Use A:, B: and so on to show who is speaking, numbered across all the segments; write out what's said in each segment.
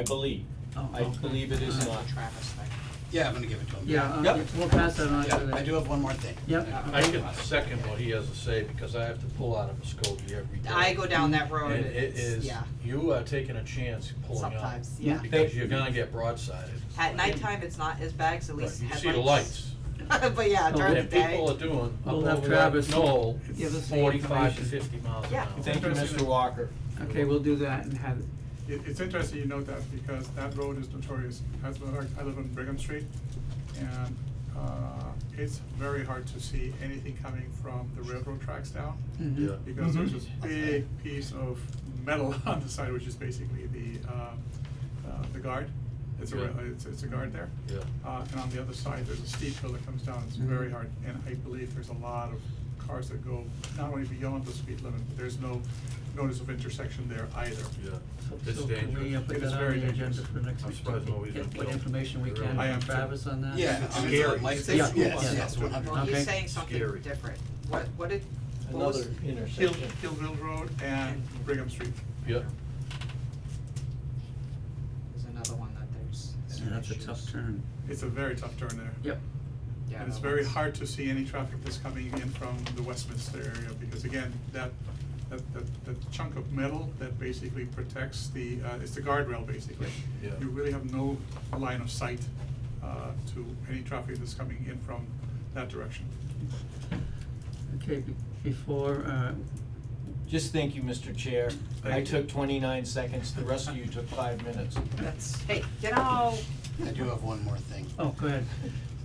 A: I believe,
B: Oh,
A: I
B: okay.
A: believe it is
B: All
A: not.
B: right.
C: Travis thing.
D: Yeah, I'm gonna give it to him.
B: Yeah, uh,
D: Yep.
B: yeah, we'll pass that on to
D: Yeah,
B: the.
D: I do have one more thing.
B: Yep.
E: I can second what he has to say, because I have to pull out of a Muskogee every day.
C: I go down that road,
E: And it
C: it's,
E: is,
C: yeah,
E: you are taking a chance pulling out.
C: sometimes,
B: Yeah.
C: yeah.
E: Because you're gonna get broadsided.
C: At nighttime, it's not as bad, 'cause at
E: Right,
C: least
E: You
C: headlights.
E: see the lights,
C: But yeah,
B: Oh,
C: during the
E: and people
C: day,
E: are doing up
B: We'll have
E: over that
B: Travis
E: knoll,
B: give us the
E: forty-five to
B: information.
E: fifty miles an
C: Yeah.
E: hour.
A: Thank you, Mr. Walker.
B: Okay, we'll do that and have, it.
F: It, it's interesting you note that because that road is notorious, as well, like, I live on Brigham Street, and, uh, it's very hard to see anything coming from the railroad tracks down,
C: Mm.
A: Mm-hmm.
B: mhm.
F: because there's this
E: Mm-hmm.
D: Mhm.
F: big piece of metal on the side, which is basically the, uh, uh, the guard. It's a,
E: Yeah.
F: rail- it's, it's a guard there.
E: Yeah.
F: Uh, and on the other side, there's a steep hill that comes down, it's very
B: Mhm.
F: hard, and I believe there's a lot of cars that go not only beyond the speed limit, but there's no notice of intersection there either.
E: Yeah,
B: So-
E: it's
B: so can we uh,
E: dangerous.
B: put
F: It is
B: that on
F: very
B: the agenda
F: dangerous.
B: for next
E: I'm
B: week?
E: surprised
B: to
E: nobody's
B: Get
E: been
B: what
E: killed.
B: information we
E: They're
B: can
E: all-
F: I am
B: from
F: too.
B: Travis on that?
D: Yeah.
E: It's
D: I'm
E: scary.
D: sorry, Mike, say-
B: Yeah.
D: yes,
B: Yeah.
D: yes, one hundred.
C: well,
B: Okay.
C: he's saying something
E: Scary.
C: different. What, what did, what was?
A: Another
F: Hill,
A: intersection.
F: Hillville Road and Brigham Street.
E: Yep.
C: There's another one that there's.
B: Yeah,
C: some
B: that's a
C: issues.
B: tough turn.
F: It's a very tough turn there.
B: Yep.
C: Yeah,
F: And it's
C: that
F: very
C: one's-
F: hard to see any traffic that's coming in from the Westminster area, because again, that, that, that, that chunk of metal that basically protects the, uh, it's the guardrail basically.
E: Yeah.
F: You really have no line of sight, uh, to any traffic that's coming in from that direction.
B: Okay, be- before, uh,
A: Just thank you, Mr. Chair.
F: Thank
A: I
F: you.
A: took twenty-nine seconds, the rest of you took five minutes.
C: That's, hey, you know,
D: I do have one more thing.
B: oh, go ahead.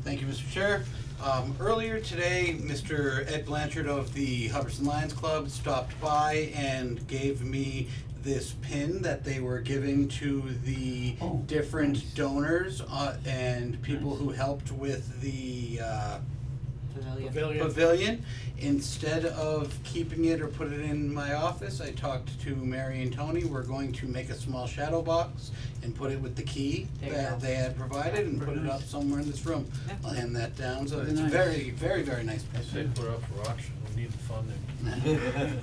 D: Thank you, Mr. Chair. Um, earlier today, Mr. Ed Blanchard of the Hubbardson Lions Club stopped by and gave me this pin that they were giving to the
B: Oh, nice.
D: different donors, uh, and people
B: Nice.
D: who helped with the, uh,
C: pavilion.
D: pavilion. Instead of keeping it or put it in my office, I talked to Mary and Tony, we're going to make a small shadow box and put it with the key
C: There you
D: that
C: go.
D: they had provided and put it up
B: Nice.
D: somewhere in this room.
C: Yeah.
D: I'll hand that down, so
B: Very
D: it's
B: nice.
D: very, very, very nice.
E: I say put it up for auction, we need the funding.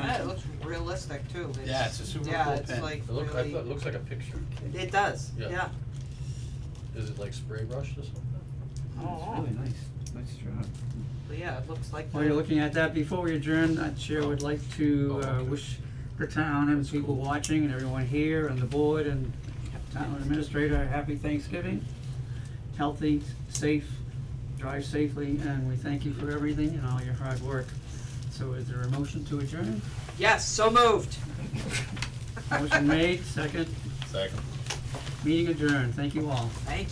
C: Yeah, it looks realistic too. It's-
D: Yeah, it's a super
C: Yeah,
D: cool
C: it's
D: pen.
C: like
E: It look, I
C: really,
E: thought, it looks like a picture.
C: it does,
E: Yeah.
C: yeah.
E: Is it like spray brushed or something?
B: That's
C: Oh,
B: really nice, nice job.
C: but yeah, it looks like.
B: While you're looking at that, before we adjourn, the chair would like to
E: Oh,
B: uh,
E: okay.
B: wish the town and people watching and everyone here and the board and town administrator a happy Thanksgiving. Healthy, safe, drive safely, and we thank you for everything and all your hard work. So is there a motion to adjourn?
C: Yes, so moved.
B: Motion made, second. Second. Meeting adjourned, thank you all.
C: Thank you.